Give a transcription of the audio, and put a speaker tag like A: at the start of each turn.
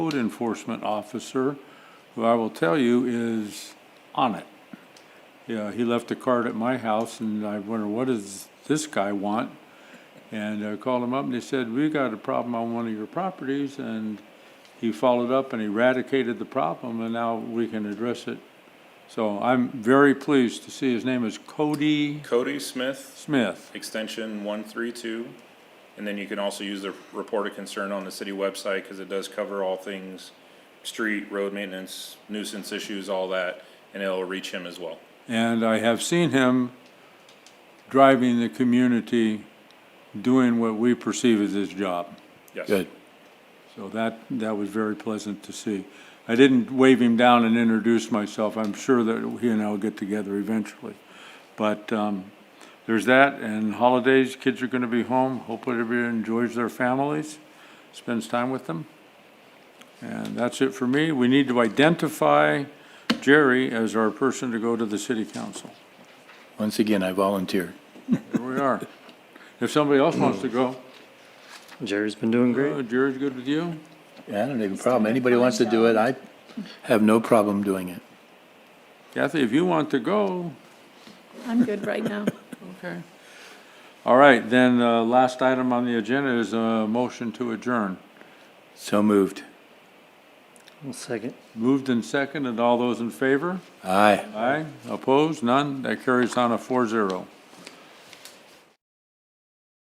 A: code enforcement officer, who I will tell you is on it. Yeah, he left a card at my house and I wonder, what does this guy want? And I called him up and he said, we got a problem on one of your properties and he followed up and eradicated the problem and now we can address it. So I'm very pleased to see his name is Cody
B: Cody Smith,
A: Smith.
B: extension one three two. And then you can also use the report of concern on the city website, cause it does cover all things, street, road maintenance, nuisance issues, all that, and it'll reach him as well.
A: And I have seen him driving the community, doing what we perceive as his job.
B: Yes.
C: Good.
A: So that, that was very pleasant to see. I didn't wave him down and introduce myself. I'm sure that he and I will get together eventually. But um, there's that, and holidays, kids are going to be home. Hopefully everybody enjoys their families, spends time with them. And that's it for me. We need to identify Jerry as our person to go to the city council.
C: Once again, I volunteer.
A: There we are. If somebody else wants to go,
D: Jerry's been doing
A: uh,
D: great.
A: Jerry's good with you?
C: Yeah, I don't have a problem. Anybody wants to do it, I have no problem doing it.
A: Kathy, if you want to go,
E: I'm good right now.
A: Okay. All right, then, uh, last item on the agenda is a motion to adjourn.
C: So moved.
D: One second.
A: Moved and seconded, all those in favor?
C: Aye.
A: Aye. Opposed? None? That carries on a four zero.